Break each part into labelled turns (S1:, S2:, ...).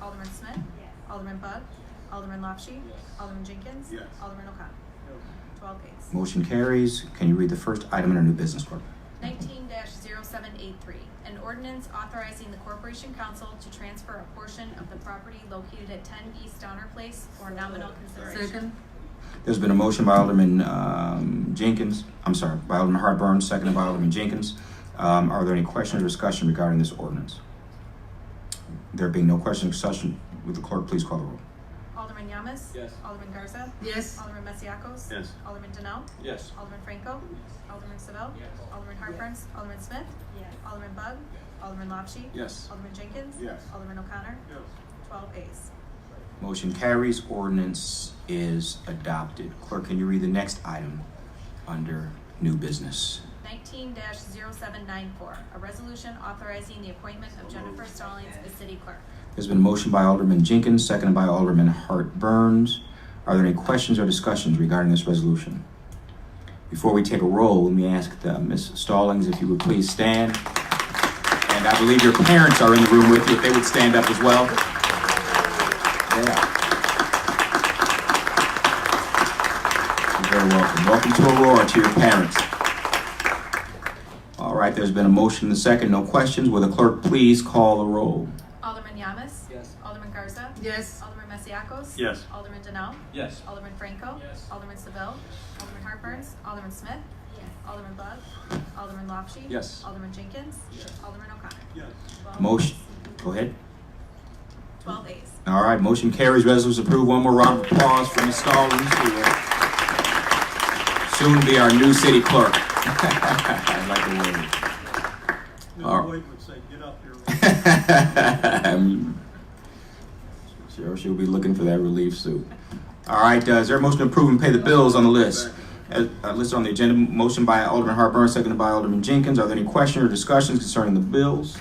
S1: Alderman Smith. Alderman Bug. Alderman Lopshi. Alderman Jenkins.
S2: Yes.
S1: Alderman O'Connor. Twelve ayes.
S3: Motion carries. Can you read the first item under new business, clerk?
S1: Nineteen 783 an ordinance authorizing the Corporation Council to transfer a portion of the property located at ten East Donner Place for nominal consideration.
S4: Second.
S3: There's been a motion by Alderman um, Jenkins, I'm sorry, by Alderman Hartburns, seconded by Alderman Jenkins. Um, Are there any questions or discussion regarding this ordinance? There being no question or discussion, would the clerk please call the roll?
S1: Alderman Yamas.
S2: Yes.
S1: Alderman Garza.
S4: Yes.
S1: Alderman Masiacos.
S2: Yes.
S1: Alderman Denal.
S2: Yes.
S1: Alderman Franco. Alderman Seville. Alderman Hartburns. Alderman Smith. Alderman Bug. Alderman Lopshi.
S2: Yes.
S1: Alderman Jenkins.
S2: Yes.
S1: Alderman O'Connor.
S2: Yes.
S1: Twelve ayes.
S3: Motion carries. Ordinance is adopted. Clerk, can you read the next item under new business?
S1: Nineteen 794 a resolution authorizing the appointment of Jennifer Stallings as city clerk.
S3: There's been a motion by Alderman Jenkins, seconded by Alderman Hartburns. Are there any questions or discussions regarding this resolution? Before we take a roll, let me ask uh, Ms. Stallings if you would please stand. And I believe your parents are in the room with you, if they would stand up as well. They are. You're very welcome. Welcome to Aurora, to your parents. All right, there's been a motion and a second, no questions. Will the clerk please call the roll?
S1: Alderman Yamas.
S2: Yes.
S1: Alderman Garza.
S4: Yes.
S1: Alderman Masiacos.
S2: Yes.
S1: Alderman Denal.
S2: Yes.
S1: Alderman Franco.
S2: Yes.
S1: Alderman Seville. Alderman Hartburns. Alderman Smith. Alderman Bug. Alderman Lopshi.
S2: Yes.
S1: Alderman Jenkins.
S2: Yes.
S1: Alderman O'Connor.
S2: Yes.
S1: Twelve-
S3: Motion, go ahead.
S1: Twelve ayes.
S3: All right, motion carries, resolution approved. One more round of applause for Ms. Stallings, who will soon be our new city clerk. I'd like to wave. All
S5: Mr. Boyd would say, get up here.
S3: Um, Sure, she'll be looking for that relief suit. All right, uh, is there a motion to approve and pay the bills on the list? As, uh, listed on the agenda, motion by Alderman Hartburns, seconded by Alderman Jenkins. Are there any questions or discussions concerning the bills?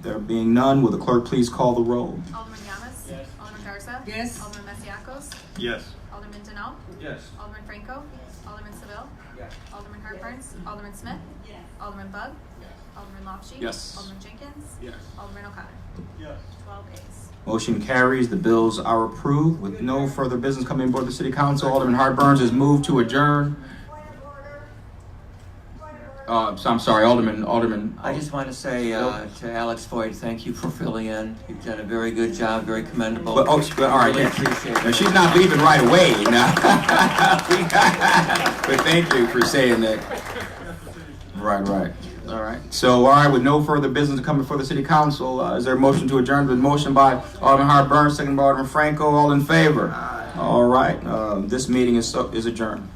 S3: There being none, will the clerk please call the roll?
S1: Alderman Yamas.
S2: Yes.
S1: Alderman Garza.
S4: Yes.
S1: Alderman Masiacos.
S2: Yes.
S1: Alderman Denal.
S2: Yes.
S1: Alderman Franco. Alderman Seville.
S2: Yes.
S1: Alderman Hartburns. Alderman Smith. Alderman Bug. Alderman Lopshi.
S2: Yes.
S1: Alderman Jenkins.
S2: Yes.
S1: Alderman O'Connor.
S5: Yes,
S1: Twelve ayes.
S3: Motion carries. The bills are approved. With no further business coming before the city council, Alderman Hartburns has moved to adjourn. Uh, so I'm sorry, Alderman, Alderman.
S6: I just want to say uh, to Alex Voigt, thank you for filling in. You've done a very good job, very commendable.
S3: But, oh, she- but, all right,
S6: Really
S3: yeah.
S6: appreciate
S3: Now,
S6: it.
S3: she's not leaving right away, no. But thank you for saying that. Right, right. All right. So, all right, with no further business coming before the city council, uh, is there a motion to adjourn? With motion by Alderman Hartburns, second by Alderman Franco, all in favor? All right, um, this meeting uh, is, so- is adjourned.